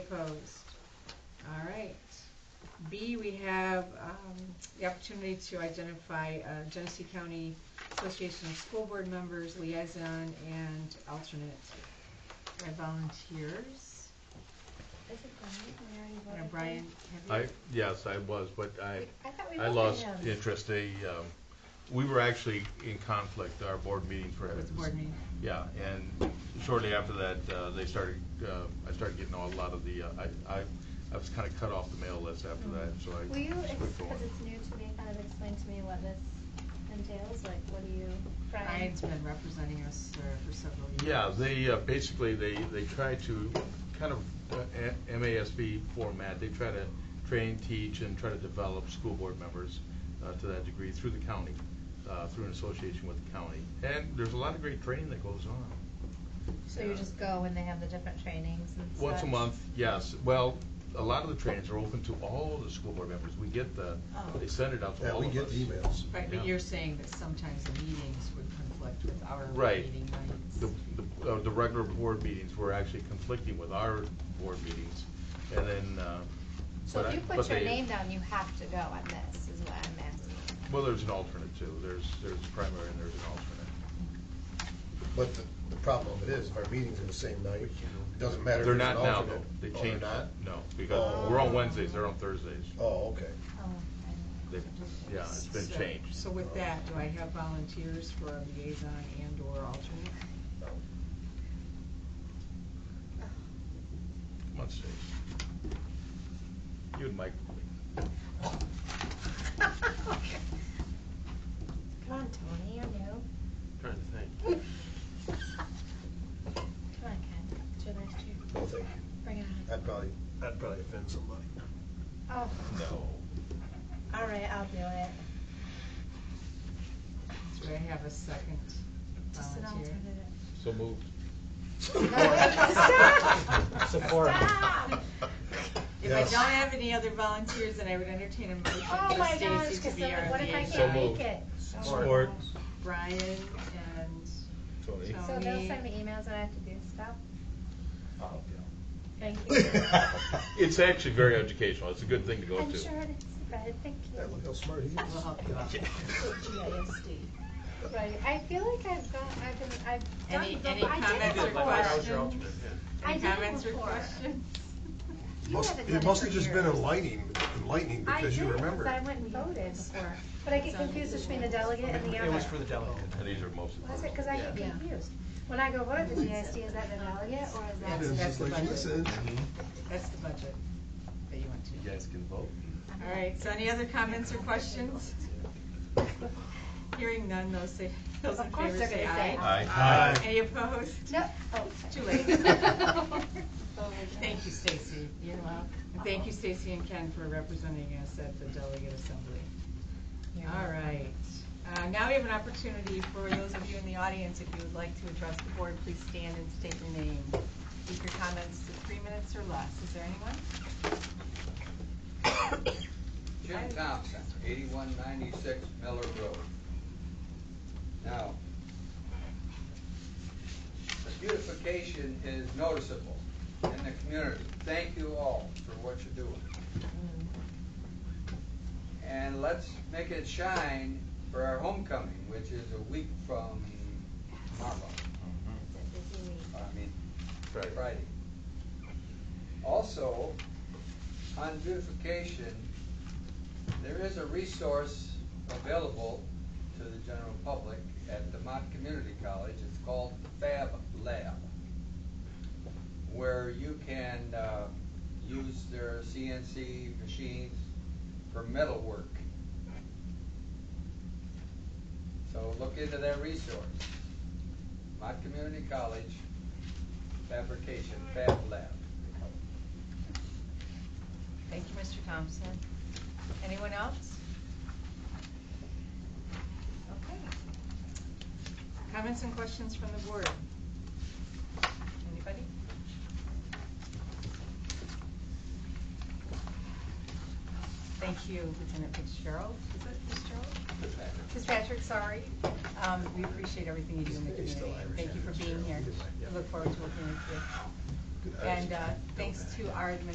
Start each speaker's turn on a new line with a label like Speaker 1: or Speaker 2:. Speaker 1: opposed? All right. B, we have um, the opportunity to identify uh, Genesee County Association of School Board Members, liaison, and alternate by volunteers.
Speaker 2: Is it Brian? We already
Speaker 1: I don't
Speaker 2: voted
Speaker 1: know,
Speaker 2: for
Speaker 1: Brian,
Speaker 2: him.
Speaker 1: have
Speaker 3: I,
Speaker 1: you?
Speaker 3: yes, I was, but I,
Speaker 2: We- I thought we
Speaker 3: I
Speaker 2: voted
Speaker 3: lost
Speaker 2: him.
Speaker 3: interest. They, um, we were actually in conflict, our board meetings were.
Speaker 1: With the board meeting.
Speaker 3: Yeah, and shortly after that, uh, they started, uh, I started getting a lot of the, uh, I, I, I was kinda cut off the mail list after that, so I.
Speaker 2: Will you,
Speaker 3: just quit going.
Speaker 2: because it's new to me, kind of explain to me what this entails? Like, what do you, Brian?
Speaker 1: Brian's been representing us uh, for several years.
Speaker 3: Yeah, they, uh, basically, they, they try to, kind of uh, a- MASB format, they try to train, teach, and try to develop school board members uh, to that degree through the county, uh, through an association with the county. And there's a lot of great training that goes on.
Speaker 2: So you just go when they have the different trainings and such?
Speaker 3: Once a month, yes. Well, a lot of the trainings are open to all the school board members. We get the,
Speaker 1: Oh.
Speaker 3: they send it out to
Speaker 4: Yeah,
Speaker 3: all
Speaker 4: we
Speaker 3: of
Speaker 4: get
Speaker 3: us.
Speaker 4: emails.
Speaker 1: Right,
Speaker 3: Yeah.
Speaker 1: but you're saying that sometimes the meetings would conflict with our
Speaker 3: Right.
Speaker 1: meeting nights.
Speaker 3: The, the, uh, the regular board meetings were actually conflicting with our board meetings. And then, uh.
Speaker 2: So
Speaker 3: but I-
Speaker 2: if you put
Speaker 3: but
Speaker 2: your
Speaker 3: they-
Speaker 2: name down, you have to go on this, is what I'm asking.
Speaker 3: Well, there's an alternate too. There's, there's a primary and there's an alternate.
Speaker 4: But the, the problem of it is, our meetings are the same night, it doesn't matter if
Speaker 3: They're
Speaker 4: there's
Speaker 3: not
Speaker 4: an
Speaker 3: now
Speaker 4: alternate.
Speaker 3: though. They
Speaker 4: Oh, they're
Speaker 3: changed
Speaker 4: not?
Speaker 3: that. No, because we're on Wednesdays, they're on Thursdays.
Speaker 4: Oh, okay.
Speaker 2: Oh, I
Speaker 3: They,
Speaker 2: don't know.
Speaker 3: yeah, it's been
Speaker 1: So-
Speaker 3: changed.
Speaker 1: So with that, do I have volunteers for a liaison and/or alternate?
Speaker 4: No.
Speaker 3: Come on, Stace. You and Mike.
Speaker 2: Come on, Tony, you're new.
Speaker 3: Trying to think.
Speaker 2: Come on, Ken, it's your last year.
Speaker 4: No, thank you.
Speaker 2: Bring it on.
Speaker 4: I'd probably,
Speaker 5: That'd probably offend somebody.
Speaker 2: Oh,
Speaker 3: No.
Speaker 2: all right, I'll do it.
Speaker 1: Do I have a second
Speaker 2: Just an
Speaker 1: volunteer?
Speaker 2: alternative.
Speaker 3: So moved.
Speaker 2: Stop.
Speaker 5: Support.
Speaker 2: Stop.
Speaker 1: If I
Speaker 4: Yes.
Speaker 1: don't have any other volunteers, then I would entertain a motion
Speaker 2: Oh
Speaker 1: for
Speaker 2: my gosh,
Speaker 1: Stacy to
Speaker 2: because
Speaker 1: be our
Speaker 2: what if I
Speaker 3: So
Speaker 2: can't
Speaker 1: liaison.
Speaker 3: moved.
Speaker 2: make it? Oh my
Speaker 3: Support.
Speaker 2: gosh.
Speaker 1: Brian and Tony.
Speaker 4: Tony.
Speaker 2: So they'll send me emails and I have to do stuff?
Speaker 5: Oh,
Speaker 4: I'll
Speaker 2: Thank
Speaker 4: help
Speaker 2: you.
Speaker 4: you out.
Speaker 3: It's actually very educational. It's a good thing to go to.
Speaker 2: I'm sure it's bad, thank
Speaker 4: Yeah,
Speaker 2: you.
Speaker 4: look how smart he is.
Speaker 1: We'll help you out.
Speaker 2: Right, I feel like I've got, I've been, I've done,
Speaker 1: Any,
Speaker 2: it
Speaker 1: any
Speaker 2: before. I
Speaker 1: comments
Speaker 2: did
Speaker 1: or
Speaker 2: it before.
Speaker 5: was your alternate,
Speaker 1: questions?
Speaker 2: I
Speaker 1: Any
Speaker 2: did it
Speaker 1: comments or
Speaker 2: before.
Speaker 1: questions?
Speaker 2: You
Speaker 4: Must-
Speaker 2: haven't done
Speaker 4: It must
Speaker 2: for
Speaker 4: have just been
Speaker 2: years.
Speaker 4: enlightening, enlightening
Speaker 2: I
Speaker 4: because you
Speaker 2: did, 'cause
Speaker 4: remember.
Speaker 2: I went and voted before, but I get confused between the delegate and the other.
Speaker 5: It was for the delegate.
Speaker 3: And these are most of
Speaker 2: Was
Speaker 3: them.
Speaker 2: it, cause I get
Speaker 1: Yeah.
Speaker 2: confused. When I go vote at the GISD, is that the delegate or is that?
Speaker 4: It was
Speaker 1: That's
Speaker 4: just
Speaker 1: the
Speaker 4: like,
Speaker 1: budget.
Speaker 4: listen.
Speaker 1: That's the budget that you want to.
Speaker 6: You guys can vote.
Speaker 1: All right, so any other comments or questions? Hearing none, those say, those in
Speaker 2: Of course
Speaker 1: favor
Speaker 2: they're
Speaker 1: say
Speaker 2: gonna say
Speaker 1: aye.
Speaker 3: aye.
Speaker 5: Aye.
Speaker 1: Any opposed?
Speaker 2: No, oh,
Speaker 1: It's Too
Speaker 2: sorry.
Speaker 1: late.
Speaker 2: Thank
Speaker 1: Thank you, Stacy.
Speaker 2: You're welcome.
Speaker 1: And thank you, Stacy and Ken, for representing us at the delegate assembly. All right. Uh, Now we have an opportunity for those of you in the audience, if you would like to address the board, please stand and state your name. Keep your comments to three minutes or less. Is there anyone?
Speaker 7: Jim Thompson, eighty-one ninety-six Miller Road. Now, the beautification is noticeable in the community. Thank you all for what you're doing. And let's make it shine for our homecoming, which is a week from tomorrow.
Speaker 2: It's a busy week.
Speaker 7: I mean,
Speaker 3: Right.
Speaker 7: Friday. Also, on beautification, there is a resource available to the general public at DeMont Community College. It's called Fab Lab, where you can uh, use their CNC machines for metalwork. So look into that resource. DeMont Community College, fabrication, Fab Lab.
Speaker 1: Thank you, Mr. Thompson. Anyone else? Okay. Comments and questions from the board? Anybody? Thank you, Lieutenant Fitzgerald. Is it Fitzgerald? Fitzpatrick, sorry. Um, We appreciate everything you do in the
Speaker 4: He's still
Speaker 1: community. and
Speaker 4: Irish,
Speaker 1: Thank you for being here.
Speaker 4: Fitzgerald.
Speaker 1: We look forward to working with you. And uh, thanks to our administration